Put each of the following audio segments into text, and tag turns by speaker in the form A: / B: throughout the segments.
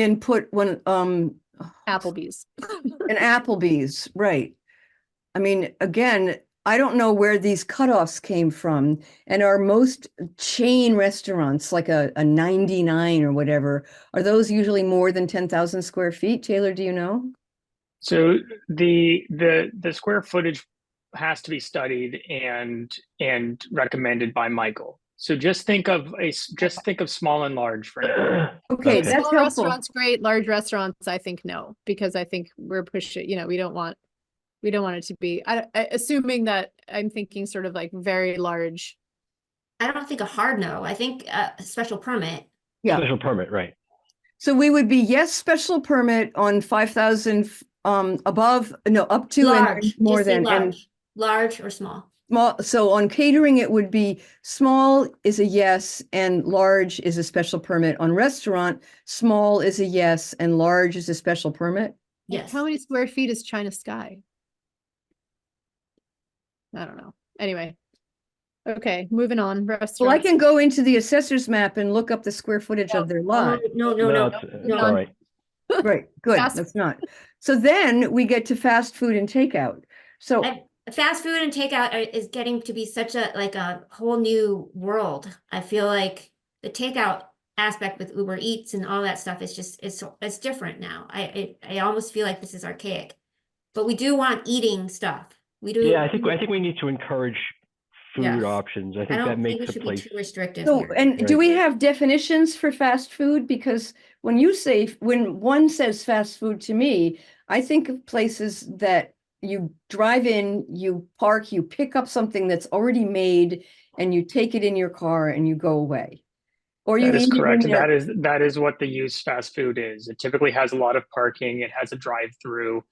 A: in put when, um,
B: Applebee's.
A: an Applebee's, right. I mean, again, I don't know where these cutoffs came from. And are most chain restaurants, like a, a ninety-nine or whatever, are those usually more than ten thousand square feet? Taylor, do you know?
C: So the the the square footage has to be studied and and recommended by Michael. So just think of a s- just think of small and large for now.
A: Okay,
D: Okay.
A: that's
B: Small
A: helpful.
B: Restaurants, great. Large restaurants, I think no, because I think we're pushing, you know, we don't want, we don't want it to be, I, I- assuming that I'm thinking sort of like very large.
E: I don't think a hard no. I think uh, a special permit.
A: Yeah.
D: Special permit, right.
A: So we would be yes, special permit on five thousand, um, above, no, up to and
E: large,
A: more
E: just say
A: than, and
E: large, large or small.
A: small, so on catering, it would be small is a yes and large is a special permit. On restaurant, small is a yes and large is a special permit.
E: Yes.
B: How many square feet is China Sky? I don't know. Anyway. Okay, moving on.
A: Well, I
B: Restaurants.
A: can go into the assessor's map and look up the square footage
B: No.
A: of their
E: Oh,
A: lot.
E: No, no, no.
D: it's- it's
E: no.
D: all right.
A: Right, good,
B: Fast-
A: that's not. So then we get to fast food and takeout. So,
E: I- Fast food and takeout are- is getting to be such a, like a whole new world. I feel like the takeout aspect with Uber Eats and all that stuff is just, it's, it's different now. I, I, I almost feel like this is archaic. But we do want eating stuff. We do.
D: Yeah, I think, I think we need to encourage
E: Yes.
D: food options. I
E: I
D: think that
E: don't think we
D: makes a
E: should be
D: place.
E: too restrictive
A: so, eh,
E: here.
A: and do
D: Right.
A: we have definitions for fast food? Because when you say, when one says fast food to me, I think of places that you drive in, you park, you pick up something that's already made and you take it in your car and you go away. Or you
C: That
A: eat
C: is
A: it in
C: correct.
A: their-
C: That is that is what the use fast food is. It typically has a lot of parking. It has a drive through.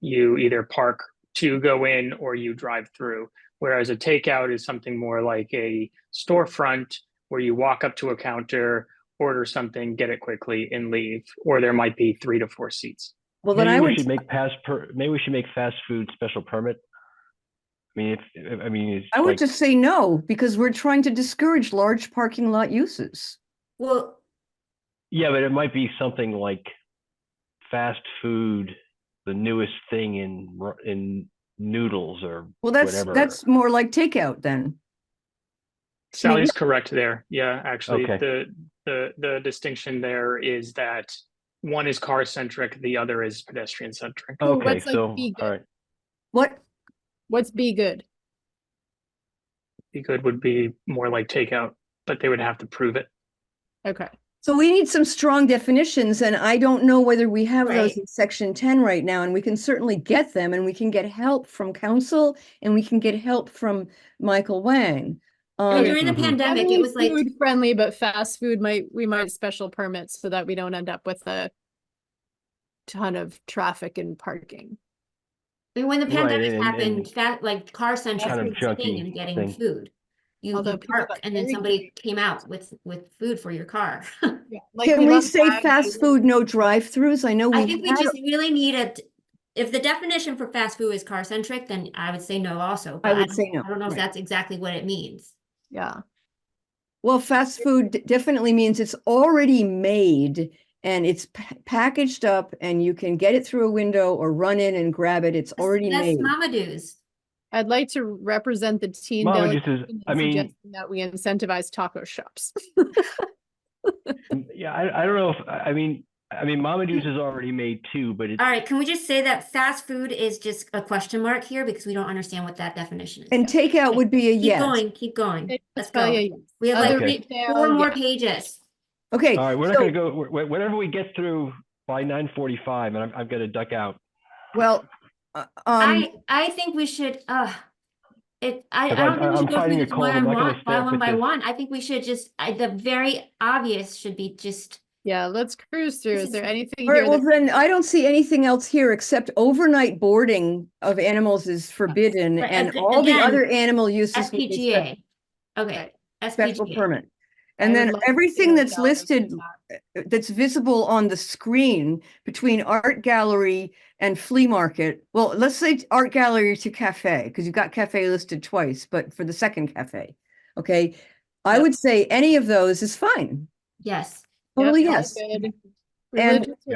C: You either park to go in or you drive through. Whereas a takeout is something more like a storefront where you walk up to a counter, order something, get it quickly, and leave. Or there might be three to four seats.
A: Well, then I
D: Maybe we
A: would,
D: should make pass per, maybe we should make fast food special permit. I mean, if, I mean, it's
A: I would
D: like,
A: just say no, because we're trying to discourage large parking lot uses.
E: Well,
D: yeah, but it might be something like fast food, the newest thing in, ru- in noodles or,
A: Well, that's,
D: Whatever.
A: that's more like takeout then.
C: Sally's correct there. Yeah, actually,
D: Okay.
C: the the the distinction there is that one is car centric, the other is pedestrian centric.
B: Ooh,
D: okay,
B: what's, like,
D: so,
B: vegan?
D: all right.
A: What?
B: What's be good?
C: Be good would be more like takeout, but they would have to prove it.
B: Okay.
A: So we need some strong definitions and I don't know whether we have those
E: Right.
A: in section ten right now and we can certainly get them and we can get help from council and we can get help from Michael Wang.
B: Okay.
A: Um,
E: during the
D: Mhm.
E: pandemic, it
B: Definitely
E: was like.
B: food friendly, but fast food might, we might special permits so that we don't end up with a ton of traffic and parking.
E: I mean, when the
D: Right,
E: pandemic
D: and- and-
E: happened, that like car centric
D: Kind of
E: was the thing
D: junky
E: and getting
D: thing.
E: food. You
B: Although
E: you
B: people
E: park
B: got
E: and then
B: very
E: somebody came out with with food for your car.
B: Like,
A: can we
B: love
A: say
B: Wagyu.
A: fast food, no drive-throughs? I know
E: I
A: we
E: think we
A: had-
E: just really need a. If the definition for fast food is car centric, then I would say no also. but
A: I would
E: don't-
A: say no.
E: I don't know if
A: right.
E: that's exactly what it means.
B: Yeah.
A: Well, fast food d- definitely means it's already made and it's pa- packaged up and you can get it through a window or run in and grab it. It's
E: That's-
A: already
E: That's
A: made.
E: Mama Do's.
B: I'd like to represent the teen
D: Mama
B: delegation
D: just is,
B: in
D: I mean,
B: suggesting that we incentivize taco shops.
D: m- yeah, I, I don't know if, I I mean, I mean, Mama Juice is already made too, but it's
E: All right, can we just say that fast food is just a question mark here because we don't understand what that definition is?
A: And takeout would be a
E: Keep
A: yes.
E: going, keep going.
B: Okay,
E: Let's
B: so, Oh, yeah,
E: go.
B: yes.
E: We have
B: Other
D: Okay.
E: like
B: retail,
E: four more
B: yeah.
E: pages.
A: Okay.
D: All right, we're not
A: so-
D: gonna go, wh- wh- whatever we get through by nine forty-five, and I'm, I'm gonna duck out.
A: Well, uh, um,
E: I, I think we should, uh, it, I, I
D: If I-
E: don't think we
D: I'm
E: should go
D: fighting
E: through
D: a
E: this
D: cold,
E: one
D: I'm
E: on
D: not gonna
E: one,
D: stay
E: by
D: up
E: one
D: with
E: by
D: this.
E: one. I think we should just, I, the very obvious should be just,
B: Yeah, let's cruise through.
E: This
B: Is
E: is
B: there anything
A: all right,
B: here?
A: well
B: that-
A: then I don't see anything else here except overnight boarding of animals is forbidden
E: Right,
A: and
E: ag-
A: all the
E: again,
A: other animal uses. would be spe-
E: SPGA. Okay,
A: Special
E: SPGA.
A: permit.
B: I
A: And
B: would
A: then
B: love to
A: everything
B: hear
A: that's
B: about
A: listed
B: that.
A: that's visible on the screen between art gallery and flea market. Well, let's say t- art gallery to cafe, because you've got cafe listed twice, but for the second cafe, okay? I
B: Yep.
A: would say any of those is fine.
E: Yes,
B: Yep,
A: Totally
B: all
A: yes.
B: good.
A: And-
B: Religious